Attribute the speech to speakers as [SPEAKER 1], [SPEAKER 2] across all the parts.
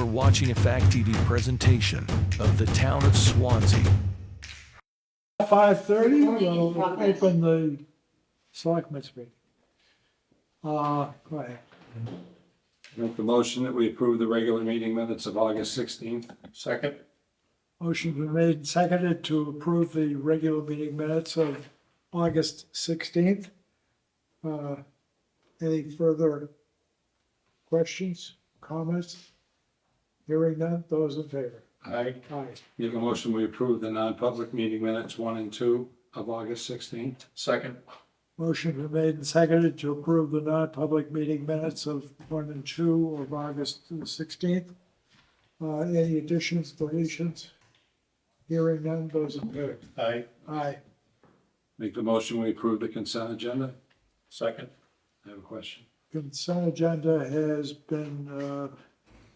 [SPEAKER 1] watching a Fact TV presentation of the town of Swansea.
[SPEAKER 2] Five thirty,
[SPEAKER 3] Good morning,
[SPEAKER 2] we'll
[SPEAKER 3] progress.
[SPEAKER 2] open the selectmen's meeting. Uh, go ahead.
[SPEAKER 4] Make the motion that we approve the regular meeting minutes of August sixteenth. Second.
[SPEAKER 2] Motion been made and seconded to approve the regular meeting minutes of August sixteenth. Uh, any further questions, comments? Hearing none, those in favor?
[SPEAKER 4] Aye.
[SPEAKER 2] Aye.
[SPEAKER 4] Make a motion, we approve the non-public meeting minutes one and two of August sixteenth. Second.
[SPEAKER 2] Motion been made and seconded to approve the non-public meeting minutes of one and two of August sixteenth. Uh, any additions, deletions? Hearing none, those in favor?
[SPEAKER 4] Aye.
[SPEAKER 2] Aye.
[SPEAKER 4] Make the motion, we approve the consent agenda.
[SPEAKER 5] Second.
[SPEAKER 4] I have a question.
[SPEAKER 2] Consent agenda has been, uh,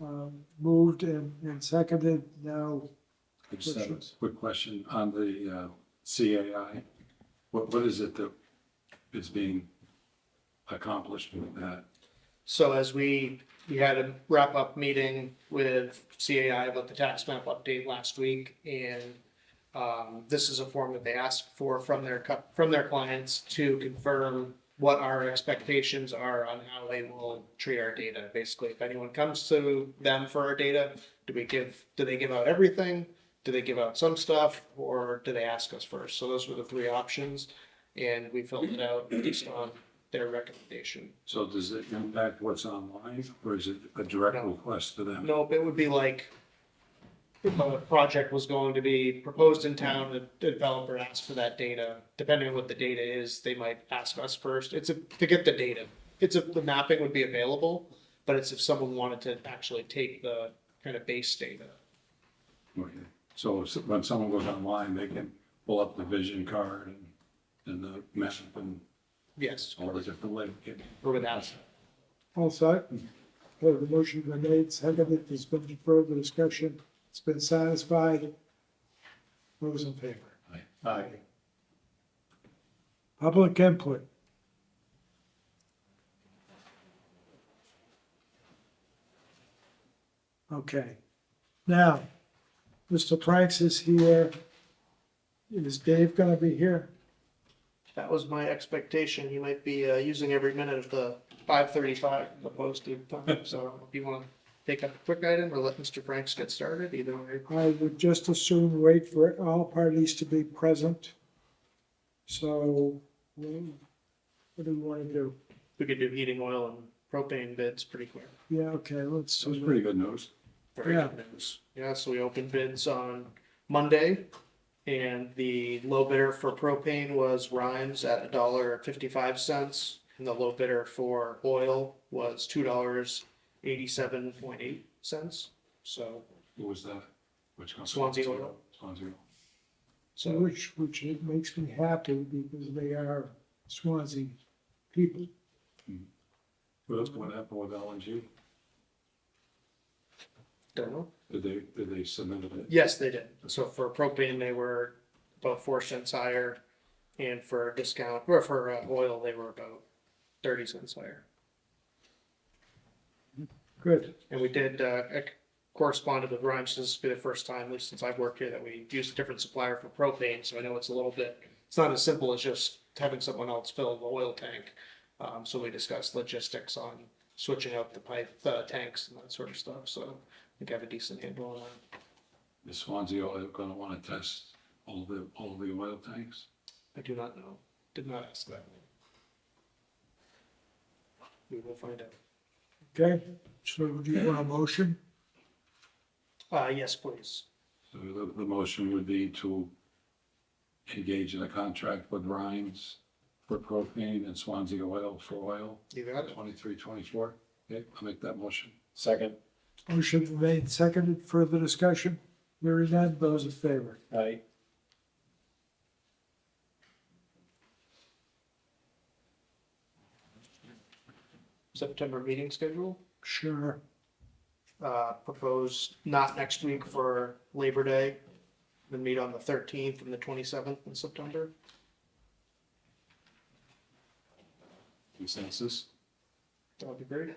[SPEAKER 2] um, moved and, and seconded now.
[SPEAKER 4] I just have a quick question on the uh, CAI. What, what is it that is being accomplished with that?
[SPEAKER 5] So as we, we had a wrap-up meeting with CAI about the tax map update last week, and um, this is a form that they asked for from their, cu- from their clients to confirm what our expectations are on how they will treat our data. Basically, if anyone comes to them for our data, do we give, do they give out everything? Do they give out some stuff, or do they ask us first? So those were the three options, and we filled it out based on their recommendation.
[SPEAKER 4] So does it impact what's online or is it a direct
[SPEAKER 5] No.
[SPEAKER 4] request to them?
[SPEAKER 5] Nope, it would be like if a project was going to be proposed in town, the developer asks for that data. Depending on what the data is, they might ask us first. It's a, to get the data. It's if the mapping would be available, but it's if someone wanted to actually take the kind of base data.
[SPEAKER 4] Okay, so s- when someone goes online, they can pull up the vision card and, and the map and
[SPEAKER 5] Yes,
[SPEAKER 4] all the different labels.
[SPEAKER 5] or without.
[SPEAKER 2] All set? Okay, the motion been made, seconded, there's been further discussion, it's been satisfied. Those in favor?
[SPEAKER 4] Aye.
[SPEAKER 2] Public input. Okay, now, Mr. Pranks is here. Is Dave gonna be here?
[SPEAKER 5] That was my expectation. You might be uh, using every minute of the five thirty-five posted time. So if you want to take up a quick item or let Mr. Franks get started, either way.
[SPEAKER 2] I would just as soon wait for all parties to be present. So, hmm, what do we wanna do?
[SPEAKER 5] we could do heating oil and propane bids pretty quick.
[SPEAKER 2] Yeah, okay, let's.
[SPEAKER 4] So it's pretty good news.
[SPEAKER 5] Very
[SPEAKER 2] Yeah.
[SPEAKER 5] good news. Yeah, so we opened bids on Monday, and the low bidder for propane was Rhymes at a dollar fifty-five cents, and the low bidder for oil was two dollars eighty-seven point eight cents. So,
[SPEAKER 4] What was that? Which company?
[SPEAKER 5] Swansea Oil.
[SPEAKER 4] Swansea Oil.
[SPEAKER 2] So
[SPEAKER 5] so
[SPEAKER 2] Which, which it makes me happy because they are Swansea people.
[SPEAKER 4] What, what happened with LNG?
[SPEAKER 5] don't know.
[SPEAKER 4] Did they, did they submit it?
[SPEAKER 5] Yes, they did. So for propane, they were about four cents higher, and for discount, or for uh, oil, they were about thirty cents higher.
[SPEAKER 2] Good.
[SPEAKER 5] And we did, uh, ac- corresponded with Rhymes, this will be the first time, at least since I've worked here, that we used a different supplier for propane, so I know it's a little bit, it's not as simple as just having someone else fill the oil tank. Um, so we discussed logistics on switching out the pipe, uh, tanks and that sort of stuff, so I think I have a decent handle on that.
[SPEAKER 4] Is Swansea Oil gonna wanna test all the, all the oil tanks?
[SPEAKER 5] I do not know, did not ask that. We will find out.
[SPEAKER 2] Okay, so do you want a motion?
[SPEAKER 5] Uh, yes, please.
[SPEAKER 4] So the, the motion would be to engage in a contract with Rhines for propane and Swansea Oil for oil.
[SPEAKER 5] You got it.
[SPEAKER 4] Twenty-three, twenty-four. Okay, I'll make that motion. Second.
[SPEAKER 2] Motion made, seconded, further discussion? Hearing none, those in favor?
[SPEAKER 4] Aye.
[SPEAKER 5] September meeting schedule?
[SPEAKER 2] Sure.
[SPEAKER 5] uh, propose not next week for Labor Day, then meet on the thirteenth and the twenty-seventh in September.
[SPEAKER 4] Consensus?
[SPEAKER 5] That would be great.